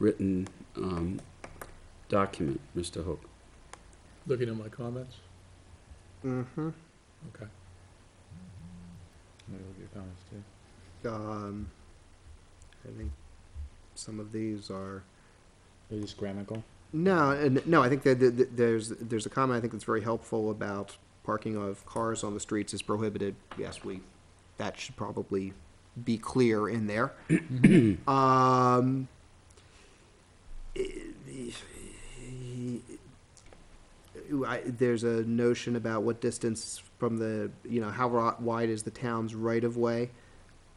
well-written um, document, Mr. Hook. Looking at my comments? Mm-hmm. Okay. Let me look at your comments too. Um, I think some of these are They're just grammatical. no, and no. I think that, that, that there's there's a comment I think that's very helpful about parking of cars on the streets is prohibited. Yes, we that should probably be clear in there. um, I, there's a notion about what distance from the, you know, how ro- wide is the town's right of way.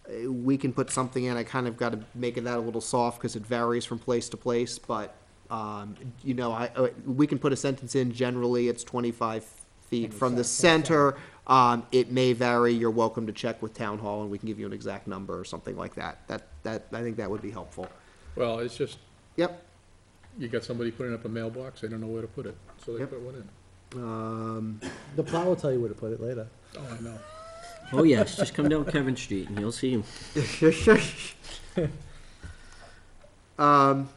Uh, We can put something in, I kind of got to make it that a little soft because it varies from place to place, but, um, you know, I, uh, we can put a sentence in, generally it's twenty-five feet from the center. Um, it may vary, you're welcome to check with town hall and we can give you an exact number or something like that. That, that, I think that would be helpful. Well, it's just, Yep, you got somebody putting up a mailbox, they don't know where to put it, so they Yep. put one in. um, The plow will tell you where to put it later. Oh, I know. Oh yes, just come down Kevin Street and you'll see him. Um,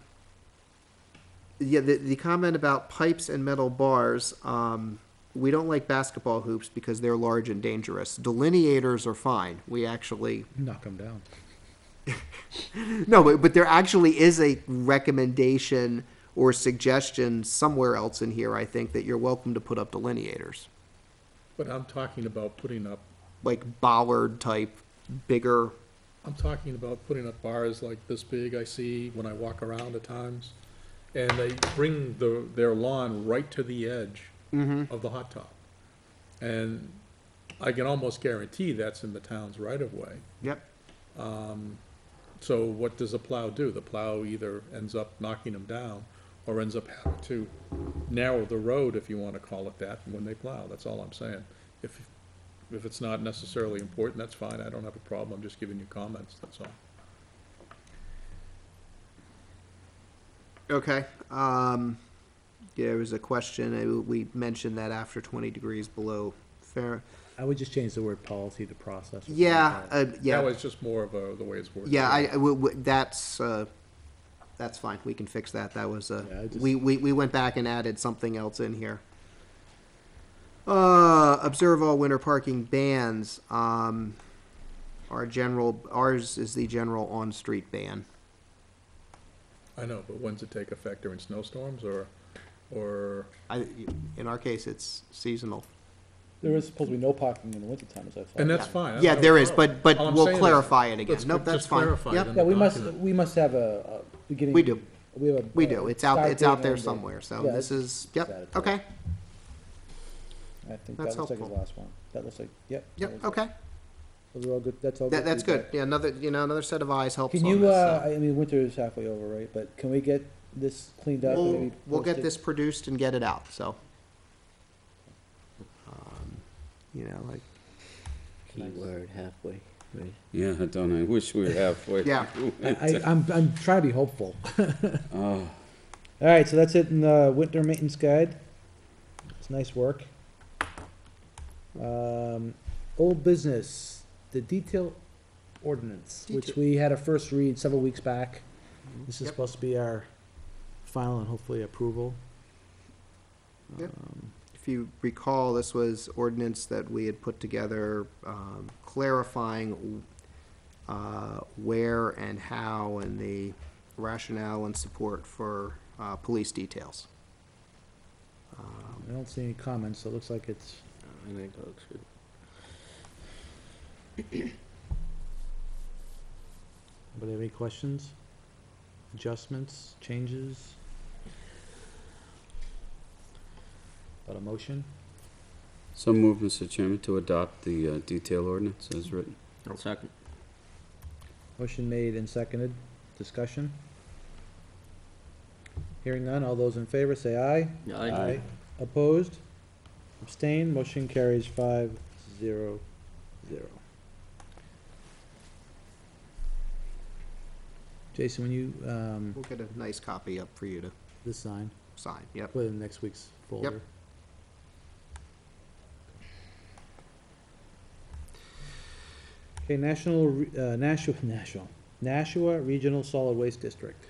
yeah, the, the comment about pipes and metal bars, um, we don't like basketball hoops because they're large and dangerous. Delineators are fine. We actually, Knock them down. no, but, but there actually is a recommendation or suggestion somewhere else in here, I think, that you're welcome to put up delineators. But I'm talking about putting up, Like bollard type, bigger, I'm talking about putting up bars like this big I see when I walk around at times. And they bring the, their lawn right to the edge Mm-hmm. of the hot top. And I can almost guarantee that's in the town's right of way. yep, So what does a plow do? The plow either ends up knocking them down or ends up having to narrow the road, if you want to call it that, when they plow. That's all I'm saying. If, if it's not necessarily important, that's fine. I don't have a problem. I'm just giving you comments, that's all. Okay. Um, yeah, there was a question. uh, We mentioned that after 20 degrees below fair. I would just change the word policy to process. or something Yeah, like that. uh, That yeah, was just more of a, the way it's worded. yeah. I, I- w- w- that's uh, that's fine. We can fix that. That was uh, Yeah, I just- we, we we went back and added something else in here. Uh, observe all winter parking bans. Um, our general ours is the general on street ban. I know, but when's it take effect during snowstorms or, or, I, in our case, it's seasonal. There is supposed to be no parking in the wintertime, as I thought. and that's fine. I Yeah, don't there have a is, problem. but- but All I'm we'll saying is, clarify it again. let's Nope, that's just fine. clarify it Yep. in Yeah, the we must, document. we must have a, a beginning. We do. We have a. We do. It's out. start It's date out and there end date. somewhere. So Yeah, this is yep. that it's- Okay. I think that's that looks like the helpful. last one. That looks like, yep. that Yep. looks like- Okay. Those are all good, that's all. That, that's good. feedback. Yeah. Another you know another set of eyes helps. Can on you, this, uh, so. I mean, winter is halfway over, right? But can we get this cleaned up? and we'll, maybe we'll get posted? this produced and get it out. So. Um, you know, like Key word halfway. Right. Yeah, I don't, know. I wish we were halfway. Yeah. through I, it. I- I'm, I'm trying to be hopeful. Oh, Ah. All right, so that's it in the winter maintenance guide. It's nice work. Um, old business, the detail ordinance, which we had a first read several weeks back. This is Yep. supposed to be our final and hopefully approval. Yep. if you recall, this was ordinance that we had put together, um, clarifying uh, where and how and the rationale and support for uh, police details. Um, I don't see any comments, so it looks like it's, I think that looks good. Anybody have any questions? Adjustments, changes? Got a motion? so move, Mr. Chairman, to adopt the uh, detail ordinance as written. I'll second. motion made and seconded, discussion. Hearing none, all those in favor say aye. Aye. Opposed? Abstained? Motion carries five zero zero. Jason, when you, um, We'll get a nice copy up for you to This sign, sign. Yep. put it in next week's folder. okay, National, Re- uh, National, National, Nashua Regional Solid Waste District.